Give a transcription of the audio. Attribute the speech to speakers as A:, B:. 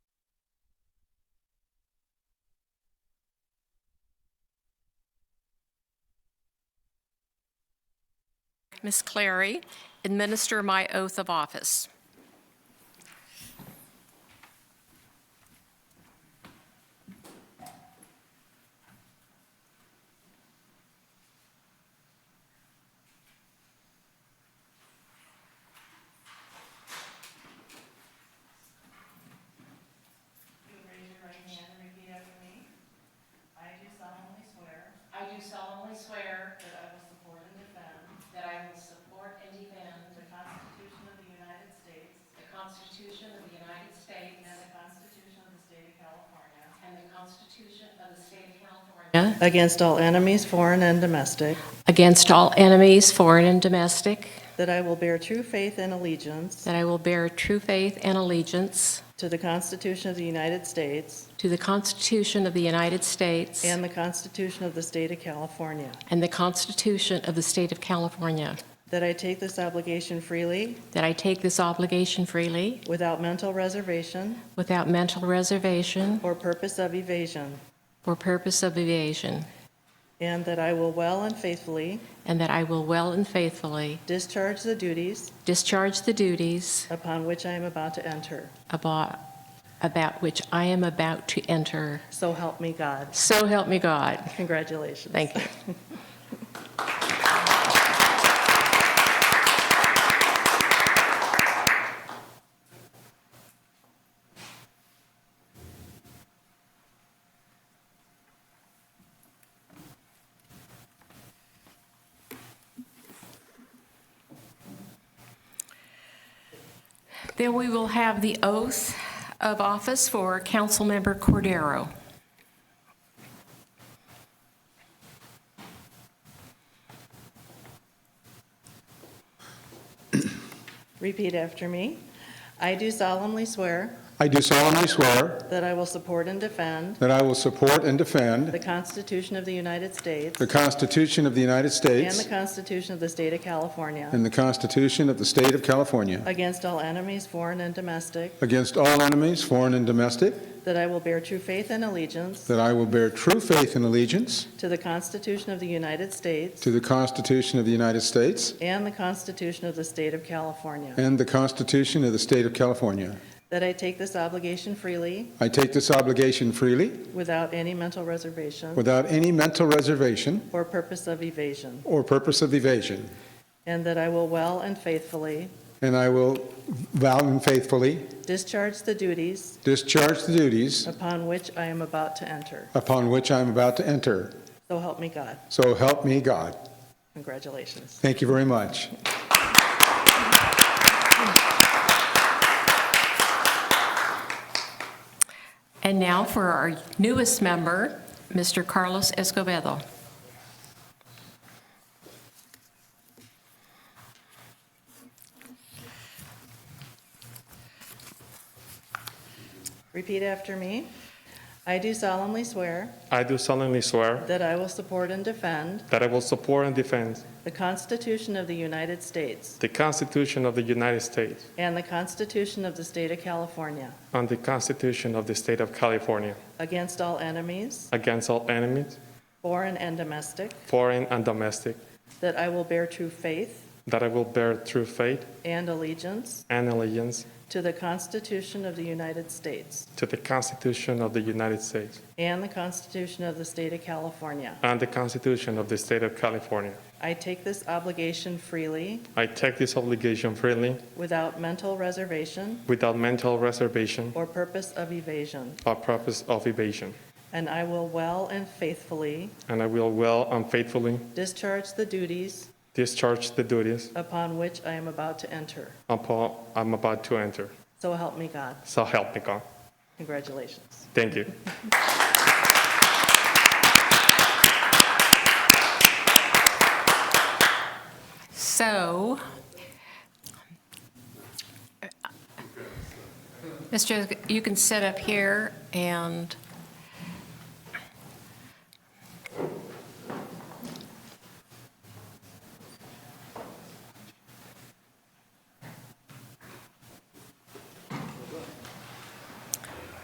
A: Ms. Clary administer my oath of office.
B: Please raise your right hand and repeat after me. I do solemnly swear. I do solemnly swear. That I will support and defend. That I will support and defend. The Constitution of the United States. The Constitution of the United States. And the Constitution of the State of California. And the Constitution of the State of California.
C: Against all enemies, foreign and domestic.
A: Against all enemies, foreign and domestic,
C: That I will bear true faith and allegiance
A: that I will bear true faith and allegiance
C: to the Constitution of the United States
A: to the Constitution of the United States
C: and the Constitution of the State of California.
A: and the Constitution of the State of California,
C: That I take this obligation freely,
A: that I take this obligation freely,
C: without mental reservation
A: without mental reservation
C: or purpose of evasion.
A: or purpose of evasion,
C: And that I will well and faithfully
A: and that I will well and faithfully
C: discharge the duties
A: discharge the duties
C: upon which I am about to enter.
A: about, about which I am about to enter.
C: So help me God.
A: So help me God.
C: Congratulations.
A: Thank you. Then we will have the oath of office for Councilmember Cordero.
C: Repeat after me. I do solemnly swear
D: I do solemnly swear
C: that I will support and defend
D: that I will support and defend
C: the Constitution of the United States
D: the Constitution of the United
C: and the
D: States
C: Constitution of the State of California
D: and the Constitution of the State of California
C: against all enemies, foreign and domestic,
D: against all enemies, foreign and domestic,
C: that I will bear true faith and allegiance
D: that I will bear true faith and allegiance
C: to the Constitution of the United States
D: to the Constitution of the United States
C: and the Constitution of the State of California,
D: and the Constitution of the State of California.
C: that I take this obligation freely
D: I take this obligation freely
C: without any mental reservation
D: without any mental reservation
C: or purpose of evasion,
D: or purpose of evasion,
C: and that I will well and faithfully
D: and I will vow and faithfully
C: discharge the duties
D: discharge the duties
C: upon which I am about to enter.
D: upon which I am about to enter.
C: So help me God.
D: So help me God.
C: Congratulations.
D: Thank you very much.
A: And now for our newest member, Mr. Carlos Escobedo.
C: Repeat after me. I do solemnly swear
E: I do solemnly swear
C: that I will support and defend
E: that I will support and defend
C: the Constitution of the United States
E: the Constitution of the United States
C: and the Constitution of the State of California
E: and the Constitution of the State of California
C: against all enemies,
E: against all enemies,
C: foreign and domestic,
E: foreign and domestic,
C: that I will bear true faith
E: that I will bear true faith
C: and allegiance
E: and allegiance
C: to the Constitution of the United States
E: to the Constitution of the United States
C: and the Constitution of the State of California.
E: and the Constitution of the State of California.
C: I take this obligation freely
E: I take this obligation freely
C: without mental reservation
E: without mental reservation
C: or purpose of evasion,
E: or purpose of evasion,
C: and I will well and faithfully
E: and I will well and faithfully
C: Discharge the duties
E: discharge the duties
C: upon which I am about to enter.
E: upon I'm about to enter.
C: So help me God.
E: So help me God.
C: Congratulations.
E: Thank you.
A: So, Mr., you can sit up here and